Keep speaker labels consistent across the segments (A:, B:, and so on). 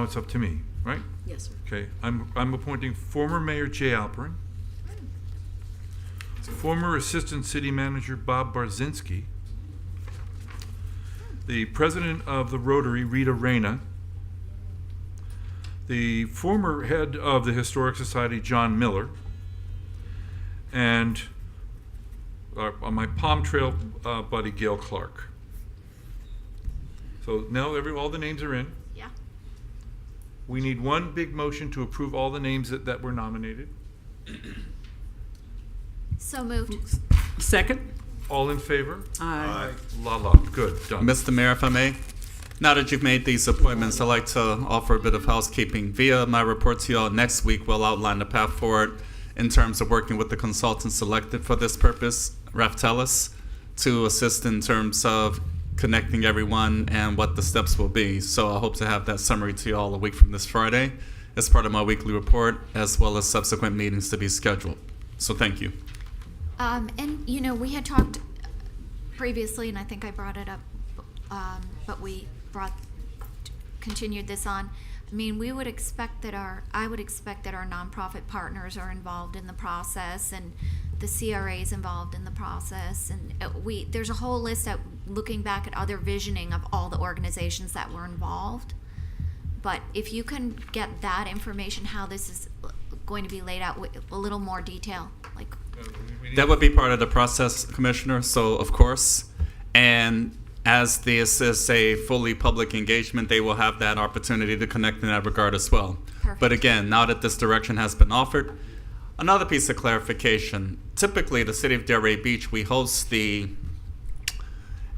A: Now it's up to me, right?
B: Yes, sir.
A: Okay, I'm, I'm appointing former Mayor Jay Alperin, former Assistant City Manager Bob Barzinski, the President of the Rotary Rita Reyna, the former head of the Historic Society John Miller, and uh, my Palm Trail uh, buddy Gail Clark. So now every, all the names are in.
B: Yeah.
A: We need one big motion to approve all the names that, that were nominated.
B: So moved.
C: Second?
A: All in favor?
C: Aye.
A: La la, good, done.
D: Mr. Uh, Mayor, if I may, now that you've made these appointments, I'd like to offer a bit of housekeeping. Via my report to you all next week, we'll outline the path forward in terms of working with the consultant selected for this purpose, Raftelis, to assist in terms of connecting everyone and what the steps will be. So I hope to have that summary to you all a week from this Friday as part of my weekly report, as well as subsequent meetings to be scheduled. So thank you.
E: Um, and, you know, we had talked previously, and I think I brought it up, um, but we brought, continued this on. I mean, we would expect that our, I would expect that our nonprofit partners are involved in the process and the CRA is involved in the process. And uh, we, there's a whole list of looking back at other visioning of all the organizations that were involved. But if you can get that information, how this is uh, going to be laid out with a little more detail, like
D: That would be part of the process, Commissioner, so of course. And as this is a fully public engagement, they will have that opportunity to connect in that regard as well. But
E: Perfect.
D: again, now that this direction has been offered, another piece of clarification. Typically, the city of Delray Beach, we host the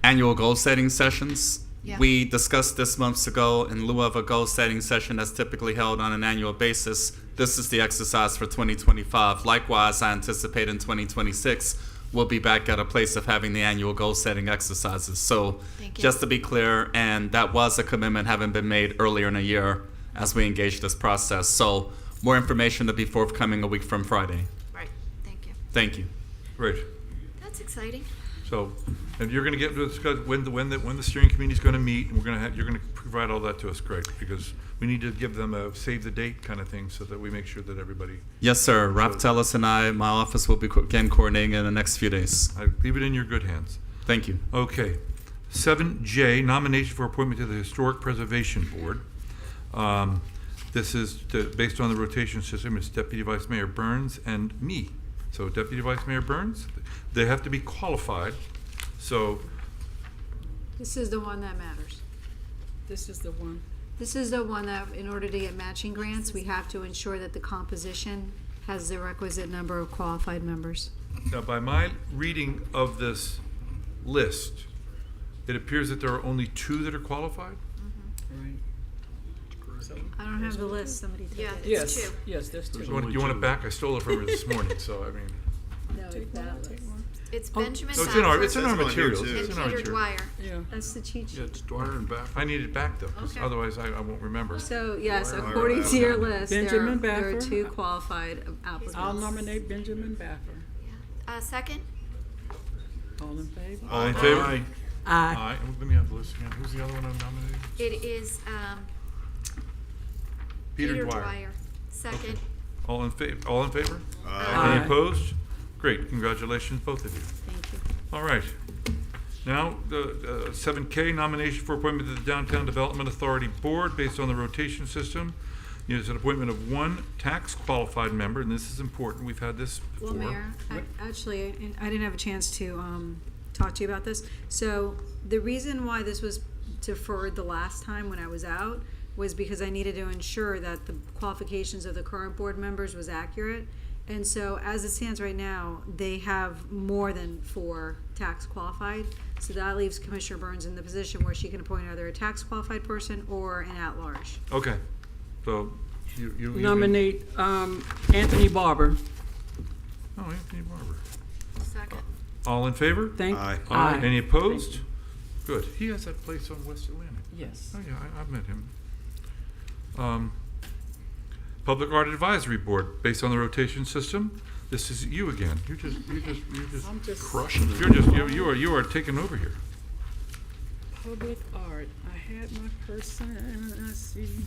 D: annual goal setting sessions.
E: Yeah.
D: We discussed this months ago in lieu of a goal setting session that's typically held on an annual basis. This is the exercise for 2025. Likewise, I anticipate in 2026 we'll be back at a place of having the annual goal setting exercises. So,
E: Thank you.
D: just to be clear, and that was a commitment having been made earlier in the year as we engage this process. So, more information to be forthcoming a week from Friday.
E: Right, thank you.
D: Thank you.
A: Great,
E: That's exciting.
A: so, and you're gonna get to discuss when the, when the, when the steering committee's gonna meet, and we're gonna have, you're gonna provide all that to us, Greg, because we need to give them a save the date kind of thing, so that we make sure that everybody,
D: Yes, sir. Ralph Tellis and I, my office will be co- again coordinating in the next few days.
A: I leave it in your good hands.
D: Thank you.
A: Okay. Seven J, nomination for appointment to the Historic Preservation Board. Um, This is to- based on the rotation system, it's Deputy Vice Mayor Burns and me. So Deputy Vice Mayor Burns, they have to be qualified, so,
F: This is the one that matters.
C: This is the one.
F: This is the one that, in order to get matching grants, we have to ensure that the composition has the requisite number of qualified members.
A: now by my reading of this list, it appears that there are only two that are qualified?
F: I don't have the list, somebody take
B: Yeah,
F: it.
B: it's
C: Yes,
B: two.
C: yes, there's
A: Do
C: two.
A: you want- do you want it back? I stole it from her this morning, so I mean,
F: No, it's not a list.
B: It's Benjamin
A: so it's in our, it's
B: Saxon
A: in our
G: That's on here,
A: materials.
G: too.
A: It's
B: and
A: in our
B: Peter
A: material.
B: Dwyer.
C: Yeah.
F: That's the cheat sheet.
G: it's Dwyer and back.
A: I need it back though, 'cause
F: Okay.
A: otherwise I, I won't remember.
F: So, yes, according to your list, there are,
C: Benjamin
F: there are
C: Baffer.
F: two qualified applicants.
C: I'll nominate Benjamin Baffer.
B: Uh, second?
C: All in favor?
A: All in favor?
G: Aye.
C: Aye.
A: Aye. And Let me have the list again. Who's the other one I'm nominating?
B: It is, um, Peter Dwyer. Second.
A: All in favor, all in favor?
C: Aye.
A: Any opposed? Great, congratulations, both of you.
F: Thank you.
A: All right. Now, the seven K nomination for appointment to the Downtown Development Authority Board based on the rotation system. It's an appointment of one tax qualified member, and this is important. We've had this
F: Well,
A: before.
F: Mayor, I- actually, and I didn't have a chance to um, talk to you about this. So the reason why this was deferred the last time when I was out was because I needed to ensure that the qualifications of the current board members was accurate. And so as it stands right now, they have more than four tax qualified. So that leaves Commissioner Burns in the position where she can appoint either a tax qualified person or an at-large.
A: Okay, so you, you. you-
C: Nominate um, Anthony Barber.
A: Oh, Anthony Barber.
B: Second.
A: All in favor?
C: Thank.
G: Aye.
A: Aye.
C: Aye.
A: Any opposed? Good. He has that place on West Atlantic.
C: Yes.
A: Oh, yeah, I, I've met him. Um, Public Art Advisory Board, based on the rotation system, this is you again. You're just, you're just, you're just,
C: I'm just
G: Crushing it.
A: you're just, you you are, you are taking over here.
C: public art. I had my person, I see.